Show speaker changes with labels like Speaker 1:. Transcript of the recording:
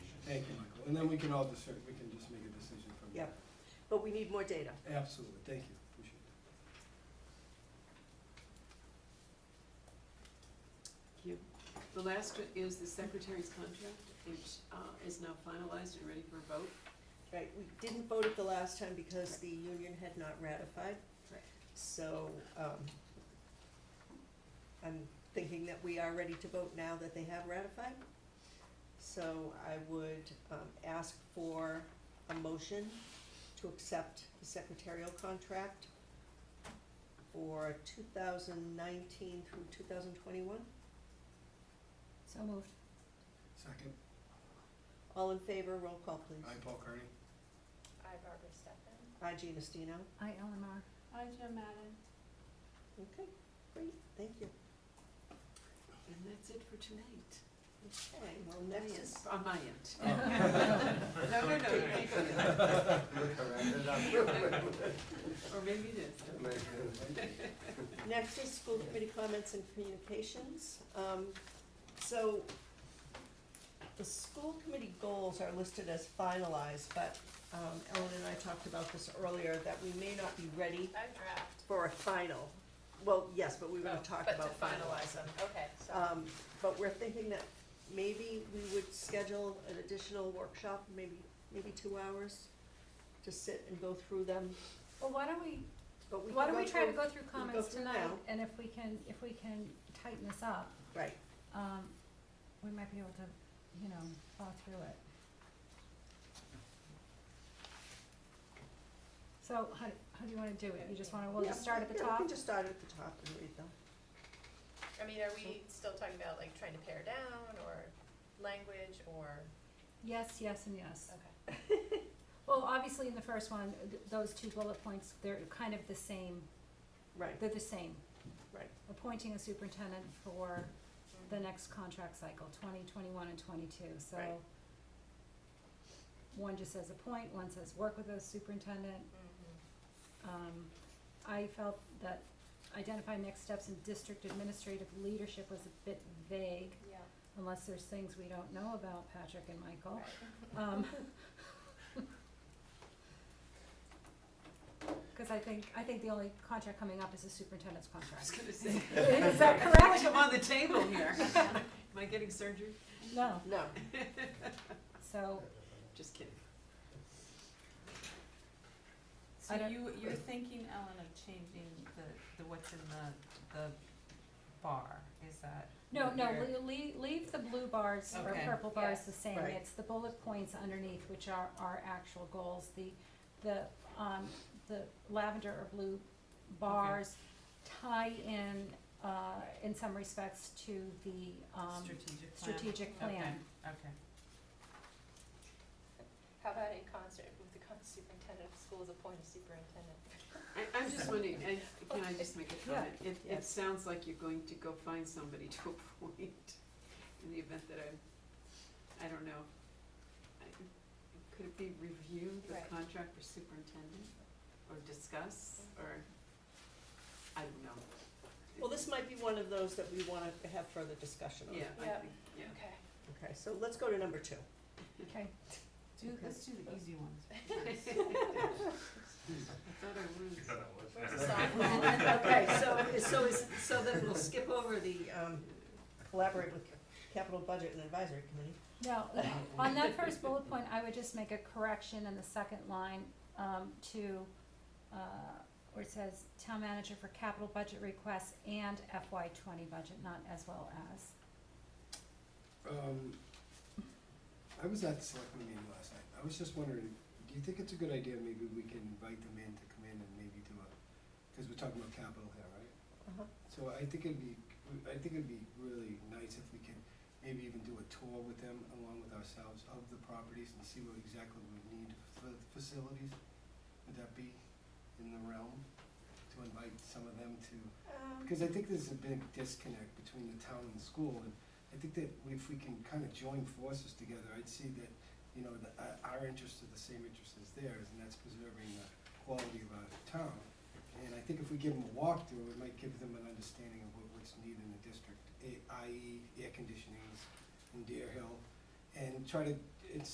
Speaker 1: And then we can all discern, we can just make a decision from there.
Speaker 2: Yep. But we need more data.
Speaker 1: Absolutely, thank you, appreciate it.
Speaker 3: Thank you. The last is the secretary's contract, which uh, is now finalized and ready for a vote.
Speaker 2: Right, we didn't vote it the last time because the union had not ratified.
Speaker 3: Right.
Speaker 2: So, um, I'm thinking that we are ready to vote now that they have ratified. So I would, um, ask for a motion to accept the secretarial contract for two thousand nineteen through two thousand twenty-one.
Speaker 4: So moved.
Speaker 1: Second,
Speaker 2: All in favor, roll call please.
Speaker 1: I, Paul Kearney.
Speaker 5: I, Barbara Steffen.
Speaker 2: Aye, Gina Stino.
Speaker 4: I, Ellen R.
Speaker 5: I, Jim Madden.
Speaker 2: Okay, great, thank you.
Speaker 3: And that's it for tonight.
Speaker 2: Okay, well, next is
Speaker 3: On my end.
Speaker 1: Oh.
Speaker 3: No, no, no, thank you. Or maybe it is.
Speaker 2: Next is school committee comments and communications. Um, so the school committee goals are listed as finalized, but, um, Ellen and I talked about this earlier, that we may not be ready
Speaker 5: I draft.
Speaker 2: for a final. Well, yes, but we were gonna
Speaker 4: Oh,
Speaker 2: talk about finalize them.
Speaker 5: Okay, so.
Speaker 2: Um, but we're thinking that maybe we would schedule an additional workshop, maybe, maybe two hours to sit and go through them,
Speaker 4: Well, why don't we,
Speaker 2: but we
Speaker 4: why
Speaker 2: can
Speaker 4: don't we try to
Speaker 2: through-
Speaker 4: go through
Speaker 2: can go
Speaker 4: comments
Speaker 2: through
Speaker 4: tonight,
Speaker 2: now.
Speaker 4: and if we can, if we can tighten this up,
Speaker 2: Right,
Speaker 4: um, we might be able to, you know, thaw through it. So how, do- how do you wanna do it? You just wanna, we'll just
Speaker 2: Yeah,
Speaker 4: start at the
Speaker 2: yeah,
Speaker 4: top?
Speaker 2: we can just start at the top and read them.
Speaker 5: I mean, are we still talking about like trying to pare down or language or,
Speaker 4: Yes, yes, and yes.
Speaker 5: okay.
Speaker 4: Well, obviously, in the first one, th- those two bullet points, they're kind of the same,
Speaker 2: Right,
Speaker 4: they're the same.
Speaker 2: Right.
Speaker 4: Appointing a superintendent for the next contract cycle, twenty, twenty-one, and twenty-two, so.
Speaker 2: Right.
Speaker 4: One just says appoint, one says work with the superintendent,
Speaker 5: Mhm.
Speaker 2: Mm-hmm.
Speaker 4: um, I felt that identify next steps in district administrative leadership was a bit vague,
Speaker 5: Yeah.
Speaker 4: unless there's things we don't know about Patrick and Michael.
Speaker 5: Right.
Speaker 4: Um, cause I think, I think the only contract coming up is the superintendent's
Speaker 3: I was
Speaker 4: contract.
Speaker 3: gonna say.
Speaker 4: Is that
Speaker 3: I feel like
Speaker 4: correct?
Speaker 3: I'm on the table here. Am I getting surgery?
Speaker 4: No,
Speaker 2: no,
Speaker 4: so,
Speaker 3: Just kidding.
Speaker 6: So
Speaker 4: I don't-
Speaker 6: you, you're thinking, Ellen, of changing the, the what's in the, the bar, is that?
Speaker 4: no,
Speaker 6: what
Speaker 4: no,
Speaker 6: you're-
Speaker 4: le- le- leave the blue bars or
Speaker 6: Okay.
Speaker 4: purple bars
Speaker 5: Yeah.
Speaker 4: the same,
Speaker 2: Right.
Speaker 4: it's the bullet points underneath, which are our actual goals, the, the, um, the lavender or blue bars tie in, uh, in some respects to the, um,
Speaker 6: Strategic plan?
Speaker 4: strategic plan.
Speaker 6: Okay, Okay,
Speaker 5: How about in concert with the con- superintendent of schools appoint a superintendent?
Speaker 3: I, I'm just wondering, and can I just make a
Speaker 2: Yeah.
Speaker 3: comment? It, it
Speaker 2: Yes.
Speaker 3: sounds like you're going to go find somebody to appoint in the event that I'm, I don't know. I- Could it be review the
Speaker 5: Right.
Speaker 3: contract for superintendent or discuss or, I don't know.
Speaker 2: well, this might be one of those that we wanna have further discussion on.
Speaker 3: Yeah, I
Speaker 5: Yeah.
Speaker 3: think, yeah.
Speaker 5: Okay.
Speaker 2: Okay, so let's go to number two.
Speaker 4: Okay,
Speaker 6: do,
Speaker 2: Okay.
Speaker 6: let's do the easy ones.
Speaker 3: I thought I was.
Speaker 5: Where's the softball?
Speaker 2: Okay, so, so is, so then we'll skip over the, um, collaborate with capital budget and advisory committee.
Speaker 4: no, on that first bullet point, I would just make a correction in the second line, um, to, uh, where it says town manager for capital budget requests and FY twenty budget, not as well as.
Speaker 1: Um, I was at the selectman meeting last night, I was just wondering, do you think it's a good idea, maybe we can invite them in to come in and maybe do a, cause we're talking about capital here, right?
Speaker 2: Uh-huh.
Speaker 1: So I think it'd be, I think it'd be really nice if we can maybe even do a tour with them along with ourselves of the properties and see what exactly we need for the facilities. Would that be in the realm to invite some of them to because I think there's a big disconnect between the town and the school, and I think that if we can kind of join forces together, I'd see that, you know, the, uh, our interests are the same interests as theirs, and that's preserving the quality of our town. And I think if we give them a walkthrough, it might give them an understanding of what, what's needed e, in the district, i- i.e. air conditionings in Deer Hill, and try to